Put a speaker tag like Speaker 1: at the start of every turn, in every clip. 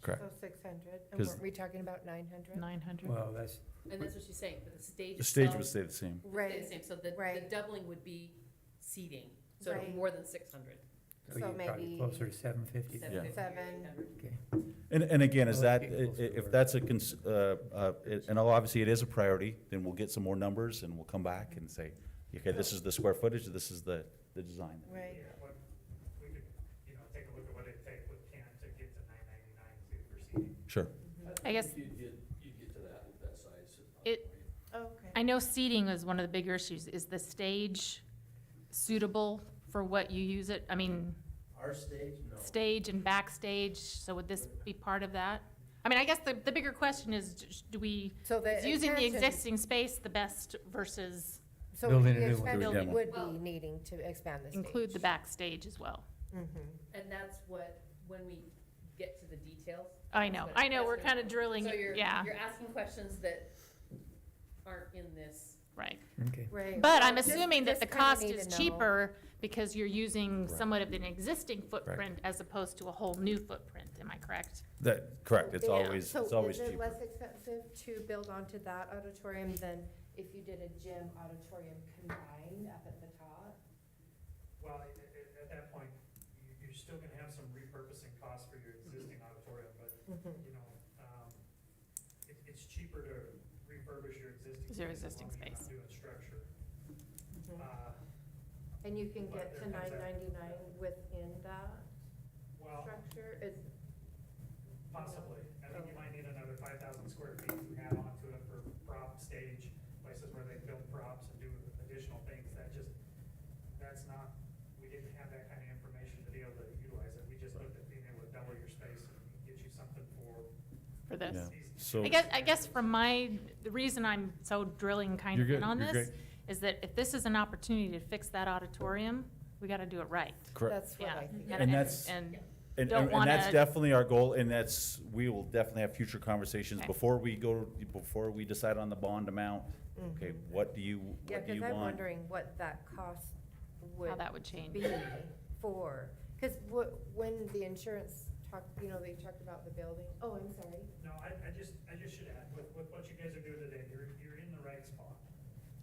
Speaker 1: Correct.
Speaker 2: So six hundred, and
Speaker 1: 'Cause-
Speaker 2: weren't we talking about nine hundred?
Speaker 3: Nine hundred.
Speaker 4: Well, that's,
Speaker 5: And that's what she's saying, but the stage
Speaker 1: The stage would
Speaker 5: itself
Speaker 1: stay the same.
Speaker 5: would stay
Speaker 2: Right,
Speaker 5: the same, so the, the
Speaker 2: right.
Speaker 5: doubling would be seating, so it'd be
Speaker 2: Right.
Speaker 5: more than six hundred.
Speaker 4: so
Speaker 2: So
Speaker 4: you're probably
Speaker 2: maybe-
Speaker 4: closer to seven fifty.
Speaker 2: Seven.
Speaker 4: Okay.
Speaker 1: And, and again, is
Speaker 4: Well,
Speaker 1: that, i-
Speaker 4: it equals
Speaker 1: i-
Speaker 4: to
Speaker 1: if
Speaker 4: our-
Speaker 1: that's a, cons- uh, uh, it- and obviously it is a priority, then we'll get some more numbers and we'll come back and say, okay, this is the square footage, this is the, the design.
Speaker 2: right.
Speaker 6: Yeah, what, we could, you know, take a look at what it take with Ken to get to nine ninety-nine to proceed.
Speaker 1: Sure.
Speaker 3: I guess-
Speaker 7: You'd get, you'd get to that with that size.
Speaker 3: It- I
Speaker 2: Okay.
Speaker 3: know seating is one of the bigger issues. Is the stage suitable for what you use it? I mean,
Speaker 7: Our stage, no.
Speaker 3: stage and backstage, so would this be part of that? I mean, I guess the, the bigger question is, d- do we,
Speaker 2: So the
Speaker 3: is using the
Speaker 2: expansion-
Speaker 3: existing space the best versus
Speaker 2: So
Speaker 4: Building
Speaker 2: the
Speaker 4: a new
Speaker 1: Do
Speaker 4: one.
Speaker 1: a
Speaker 2: expansion
Speaker 1: demo.
Speaker 2: would
Speaker 5: Well-
Speaker 2: be needing to expand the stage.
Speaker 3: include the backstage as well?
Speaker 2: Mhm.
Speaker 5: And that's what, when we get to the details.
Speaker 3: I
Speaker 5: that's
Speaker 3: know,
Speaker 5: what-
Speaker 3: I know,
Speaker 5: that's
Speaker 3: we're
Speaker 5: what-
Speaker 3: kind of drilling,
Speaker 5: So you're,
Speaker 3: yeah,
Speaker 5: you're asking questions that aren't in this.
Speaker 3: right.
Speaker 4: Okay.
Speaker 2: Right.
Speaker 3: But I'm
Speaker 2: Just-
Speaker 3: assuming
Speaker 2: just
Speaker 3: that the
Speaker 2: kinda
Speaker 3: cost
Speaker 2: need to
Speaker 3: is
Speaker 2: know.
Speaker 3: cheaper because you're using
Speaker 1: Correct.
Speaker 3: somewhat of an existing footprint as opposed to a whole new footprint, am I correct?
Speaker 1: That, correct, it's
Speaker 2: Yeah.
Speaker 1: always, it's always
Speaker 2: So is it
Speaker 1: cheaper.
Speaker 2: less expensive to build onto that auditorium than if you did a gym auditorium combined up at the top?
Speaker 6: Well, at, at that point, you, you're still gonna have some repurposing costs for your existing
Speaker 3: Mm-hmm.
Speaker 6: auditorium, but, you know, um, it, it's cheaper to refurbish your existing.
Speaker 3: Is your
Speaker 6: space as
Speaker 3: existing
Speaker 6: long as you're
Speaker 3: space.
Speaker 6: not doing structure.
Speaker 2: Mhm.
Speaker 3: mm-hmm.
Speaker 6: Uh,
Speaker 2: And you can
Speaker 6: But
Speaker 2: get to
Speaker 6: there comes
Speaker 2: nine
Speaker 6: that-
Speaker 2: ninety-nine within that
Speaker 6: well,
Speaker 2: structure, is,
Speaker 6: Possibly. I think you might need another five thousand square feet to add on to it for prop stage, places where they build props and do additional things. That just, that's not, we didn't have that kind of information to be able to utilize it. We just looked at being able to double your space and get you something for
Speaker 3: For this?
Speaker 1: Yeah.
Speaker 6: these.
Speaker 1: So-
Speaker 3: I guess, I guess from my, the reason I'm so drilling kind
Speaker 1: You're
Speaker 3: of in
Speaker 1: good,
Speaker 3: on
Speaker 1: you're
Speaker 3: this is that if this is an opportunity to fix that auditorium, we gotta do it right.
Speaker 1: Correct.
Speaker 2: that's what
Speaker 3: Yeah.
Speaker 2: I think.
Speaker 1: And that's-
Speaker 3: And,
Speaker 1: And,
Speaker 3: don't
Speaker 1: and and that's
Speaker 3: wanna-
Speaker 1: definitely our goal, and that's, we will definitely have future conversations
Speaker 3: Okay.
Speaker 1: before we go, before we decide on the bond amount. Okay,
Speaker 2: Mhm.
Speaker 1: what do you,
Speaker 2: Yeah,
Speaker 1: what do you
Speaker 2: because I'm
Speaker 1: want?
Speaker 2: wondering what that cost would.
Speaker 3: how that would change.
Speaker 2: be for, because when the insurance talked, you know, they talked about the building, oh, I'm sorry.
Speaker 6: No, I, I just, I just should add, with, with what you guys are doing today, you're, you're in the right spot.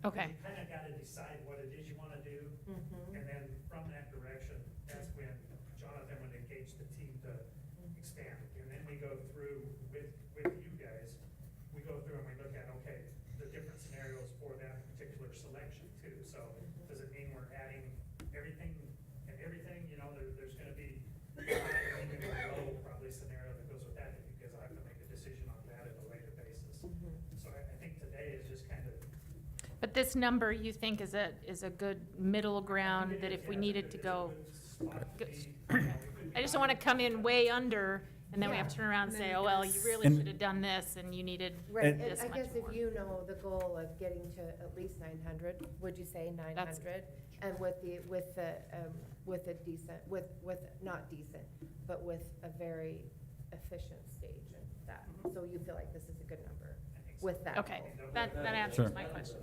Speaker 3: Okay,
Speaker 6: You kind of got to decide what it is you want to do.
Speaker 2: Mm-hmm.
Speaker 6: And then from that direction, that's when Jonathan would engage the team to expand. And then we go through with, with you guys, we go through and we look at, okay, the different scenarios for that particular selection too. So does it mean we're adding everything and everything, you know, there, there's gonna be a high, and even a low probably scenario that goes with that, because I have to make a decision on that at a later basis. So I, I think today is just kind of
Speaker 3: but this number you think is a, is a good middle ground that if we needed to go, I just don't wanna come in way under and then we have to turn around and say, oh, well, you really
Speaker 1: And-
Speaker 3: should have done this and you needed
Speaker 2: Right,
Speaker 1: And-
Speaker 2: and
Speaker 3: this
Speaker 2: I
Speaker 3: much
Speaker 2: guess
Speaker 3: more.
Speaker 2: if you know the goal of getting to at least nine hundred, would you say nine hundred? And with the, with the, um, with a decent, with, with, not decent, but with a very efficient stage and that,
Speaker 3: Mm-hmm.
Speaker 2: so you feel like this is a good number with that
Speaker 3: Okay,
Speaker 2: goal.
Speaker 3: that, that
Speaker 1: Sure.
Speaker 3: answers my question.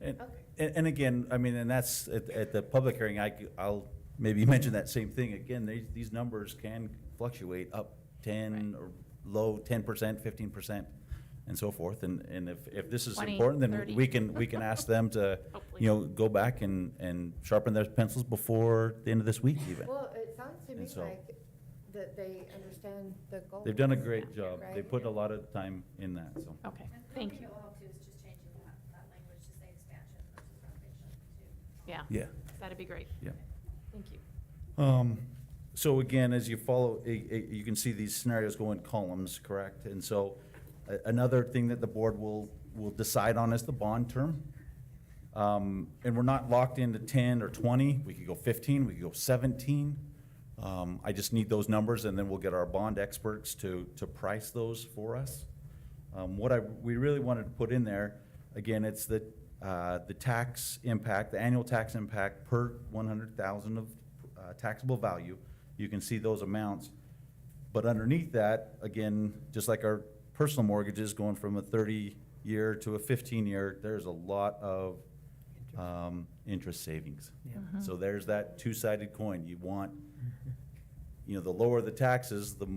Speaker 1: And,
Speaker 2: Okay.
Speaker 1: and, and again, I mean, and that's, at, at the public hearing, I, will maybe mention that same thing. Again, these, these numbers can fluctuate up ten or low ten percent, fifteen percent, and so forth. And, and if, if this is
Speaker 3: 20,
Speaker 1: important, then
Speaker 3: 30.
Speaker 1: we can, we can ask them to,
Speaker 3: Hopefully.
Speaker 1: you know, go back and, and sharpen their pencils before the end of this week even.
Speaker 2: Well, it sounds to
Speaker 1: And
Speaker 2: me
Speaker 1: so-
Speaker 2: like that they understand the goal.
Speaker 1: They've done a great
Speaker 3: Yeah.
Speaker 1: job. They
Speaker 2: Right. Oh.
Speaker 1: put a lot of time in that, so.
Speaker 3: Okay, thank you,
Speaker 8: I think it will help too is just changing that, that language to say expansion versus renovation too.
Speaker 3: yeah,
Speaker 1: Yeah,
Speaker 3: that'd be great,
Speaker 1: yeah.
Speaker 3: thank you.
Speaker 1: Um, so again, as you follow, i- i- you can see these scenarios go in columns, correct? And so, a- another thing that the board will, will decide on is the bond term. Um, and we're not locked into ten or twenty, we could go fifteen, we could go seventeen. Um, I just need those numbers and then we'll get our bond experts to, to price those for us. Um, what I, we really wanted to put in there, again, it's the, uh, the tax impact, the annual tax impact per one hundred thousand of uh, taxable value. You can see those amounts. But underneath that, again, just like our personal mortgages going from a thirty-year to a fifteen-year, there's a lot of, um, interest savings.
Speaker 4: Yeah.
Speaker 1: So there's that two-sided coin. You want, you know, the lower the taxes, the